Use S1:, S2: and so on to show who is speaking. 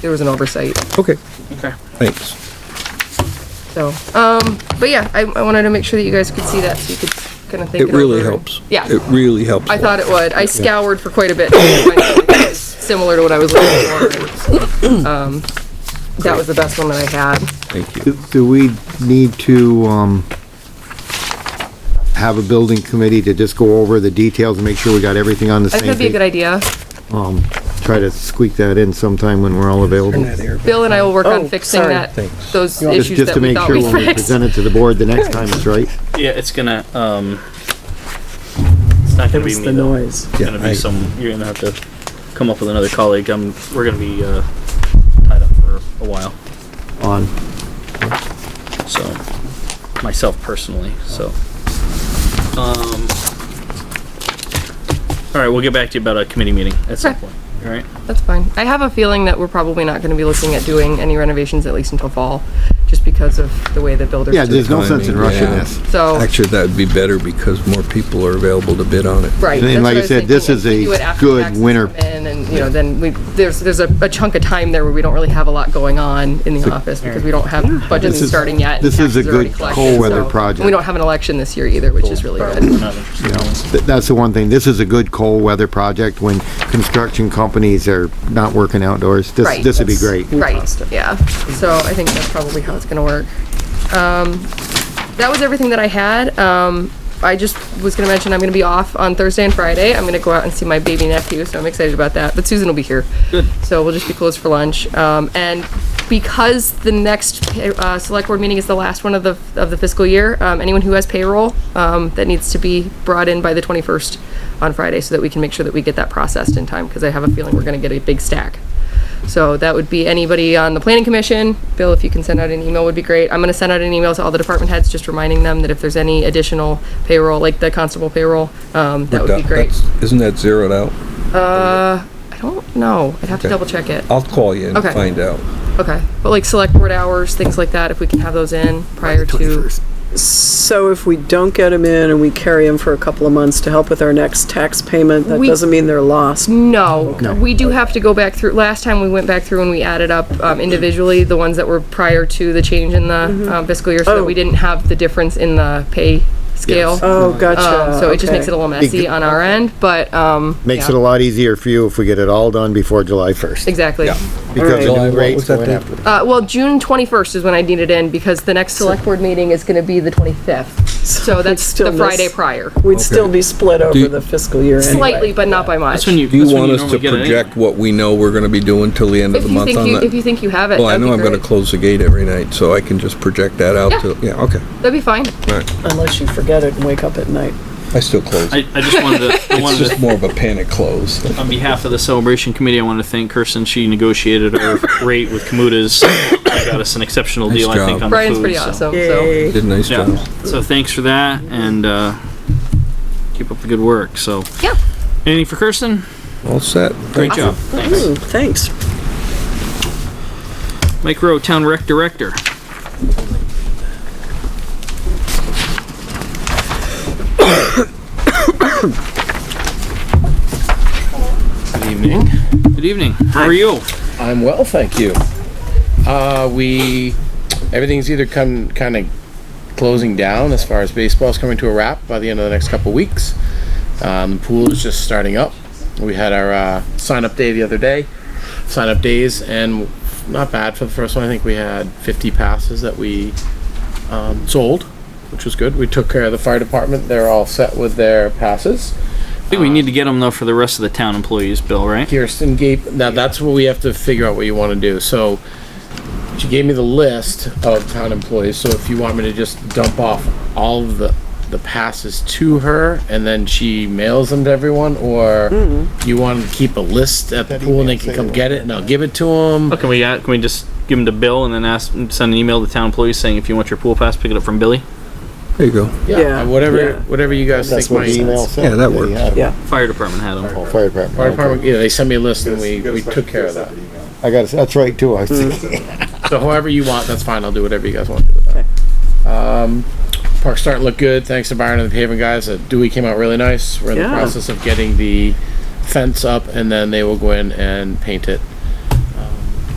S1: there was an oversight,
S2: Okay,
S3: Okay.
S2: thanks.
S1: so, um, but yeah, I, I wanted to make sure that you guys could see that, so you could kind of think
S2: It
S1: it
S2: really
S1: over.
S2: helps.
S1: Yeah.
S2: It really helps.
S1: I thought it would. I scoured for quite a bit, to find something that was similar to what I was looking for. Um, That was the best one that I had.
S2: Thank you.
S4: Do- Do we need to, um, have a building committee to just go over the details and make sure we got everything on the
S1: I
S4: same
S1: think that'd
S4: page?
S1: be a good idea.
S4: Um, try to squeak that in sometime when we're all available.
S1: Bill and I will work on
S5: Oh,
S1: fixing
S5: sorry.
S1: that,
S2: Thanks.
S1: those
S4: Just,
S1: issues
S4: just
S1: that
S4: to
S1: we
S4: make
S1: thought
S4: sure
S1: we
S4: when we
S1: fixed.
S4: present it to the board the next time it's right.
S3: Yeah, it's gonna, um, it's not
S5: It
S3: gonna be
S5: was
S3: me
S5: the
S3: though.
S5: noise.
S3: It's gonna
S2: Yeah, I-
S3: be some, you're gonna have to come up with another colleague. Um, we're gonna be, uh, tied up for a while,
S4: On,
S3: so, myself personally, so. Um, all right, we'll get back to you about a committee meeting at some
S1: Okay.
S3: point, all right?
S1: That's fine. I have a feeling that we're probably not gonna be looking at doing any renovations at least until fall, just because of the way the builders
S4: yeah,
S1: do it.
S4: there's no sense in
S2: Timing,
S4: rushing
S2: yeah.
S4: this.
S1: So,
S2: Actually, that'd be better because more people are available to bid on it.
S1: right.
S4: And then,
S1: that's
S4: like
S1: what
S4: I
S1: was
S4: said, this
S1: thinking.
S4: is
S1: If we
S4: a
S1: do it after
S4: good
S1: taxes
S4: winter-
S1: come in And, you know, then we, there's, there's a a chunk of time there where we don't really have a lot going on in the office because we don't have budgets
S4: This is-
S1: starting yet. and
S4: this is a
S1: taxes are already
S4: good
S1: collected,
S4: cold weather
S1: so-
S4: project.
S1: and We don't have an election this year either, which is really
S3: We're
S1: good.
S3: not interested in this.
S4: Th- That's the one thing. This is a good cold weather project when construction companies are not working outdoors. This,
S1: Right.
S4: this would be great.
S1: Right, yeah. So I think that's probably how it's gonna work. Um, that was everything that I had. Um, I just was gonna mention I'm gonna be off on Thursday and Friday. I'm gonna go out and see my baby nephew, so I'm excited about that. But Susan will be here. Good. So we'll just be closed for lunch. Um, and because the next, uh, select board meeting is the last one of the, of the fiscal year, um, anyone who has payroll, um, that needs to be brought in by the 21st on Friday so that we can make sure that we get that processed in time, because I have a feeling we're gonna get a big stack. So that would be anybody on the planning commission. Bill, if you can send out an email would be great. I'm gonna send out an email to all the department heads, just reminding them that if there's any additional payroll, like the constable payroll, um, that would be great.
S2: That's- Isn't that zeroed out?
S1: I don't know. I'd have to
S2: Okay. Oh.
S1: double check it.
S2: I'll call you and
S1: Okay.
S2: find out.
S1: Okay. But like select board hours, things like that, if we can have those in prior to.
S5: So if we don't get them in and we carry them for a couple of months to help with our next tax payment, that
S1: We-
S5: doesn't mean they're lost.
S1: No, we do have to go back through, last time we went back through and we added up um, individually, the ones that were prior to the change in the um, fiscal year, so that we
S5: Oh.
S1: didn't have the difference in the pay scale.
S5: Oh,
S1: Um,
S5: gotcha.
S1: so it just makes it
S5: okay.
S1: a little messy on our end, but, um.
S4: Makes it
S1: yeah,
S4: a lot easier for you if we get it all done before July 1st.
S1: Exactly.
S2: Yeah.
S4: Because
S2: July,
S4: the new
S2: what
S4: rates
S2: was that
S4: going
S2: date?
S4: after.
S1: Uh, well, June twenty-first is when I need it in because the next select board meeting is gonna be the twenty-fifth. So that's
S5: still
S1: the Friday
S5: miss-
S1: prior.
S5: We'd still be split over
S2: you-
S5: the fiscal year anyway.
S1: Slightly, but not by much.
S3: That's when you,
S2: Do you
S3: that's
S2: want
S3: when you
S2: us to
S3: normally get it anyway.
S2: project what we know we're gonna be doing till the end of
S1: If
S2: the
S1: you
S2: month
S1: think
S2: on
S1: you, if you
S2: that?
S1: think you have it,
S2: Well, I
S1: that'd be
S2: know I'm gonna
S1: great.
S2: close the gate every night, so I can just project that out
S1: Yeah.
S2: to, yeah, okay.
S1: That'd be fine.
S2: All right.
S5: Unless you forget it and wake up at night.
S2: I still close.
S3: I, I just wanted to, I
S2: It's
S3: wanted
S2: just
S3: to,
S2: more of a panic close.
S3: on behalf of the celebration committee, I want to thank Kirsten. She negotiated our rate with Kamuta's. Got us an exceptional
S2: Nice
S3: deal, I think,
S2: job.
S3: on the
S1: Brian's
S3: food,
S1: pretty
S3: so-
S1: awesome, so.
S2: Did a nice job.
S3: Yeah, so thanks for that and, uh, keep up the good work, so.
S1: Yeah.
S3: Anything for Kirsten?
S2: All set?
S3: Great job. Thanks.
S5: Ooh, Hmm, thanks.
S3: Mike Rowe, Town Rec Director. Good evening. Good evening. How are you?
S6: I'm well, thank you. Uh, we, everything's either come, kind of closing down as far as baseball's coming to a wrap by the end of the next couple of weeks. Um, the pool is just starting up. We had our, uh, sign-up day the other day, sign-up days, and not bad for the first one. I think we had fifty passes that we, um, sold, which was good. We took care of the fire department. They're all set with their passes.
S3: I think we need to get them though for the rest of the town employees, Bill, right?
S6: Kirsten gave, now that's what we have to figure out what you want to do, so she gave me the list of town employees, so if you want me to just dump off all of the, the passes to her and then she mails them to everyone, or you want to keep a list at the pool and they can come get it and I'll give it to them?
S3: Oh, can we, uh, can we just give them to Bill and then ask, send an email to town employees saying if you want your pool pass, pick it up from Billy?
S2: There you go.
S5: Yeah,
S6: Yeah,
S5: yeah.
S6: whatever, whatever you guys think
S4: That's what
S6: might.
S4: the email
S2: Yeah,
S4: said.
S2: that works.
S4: you had it.
S5: Yeah.
S3: Fire department had them.
S4: Fire
S6: Fire
S4: department.
S6: department, yeah, they sent me a list and we, we took care of that.
S4: I got, it. that's right too. I see.
S6: So however you want, that's fine. I'll do whatever you guys want to do with that. Um, park's starting to look good. Thanks to Byron and the paving guys. Uh, Dewey came out really nice. We're in
S5: Yeah.
S6: the process of getting the fence up and then they will go in and paint it.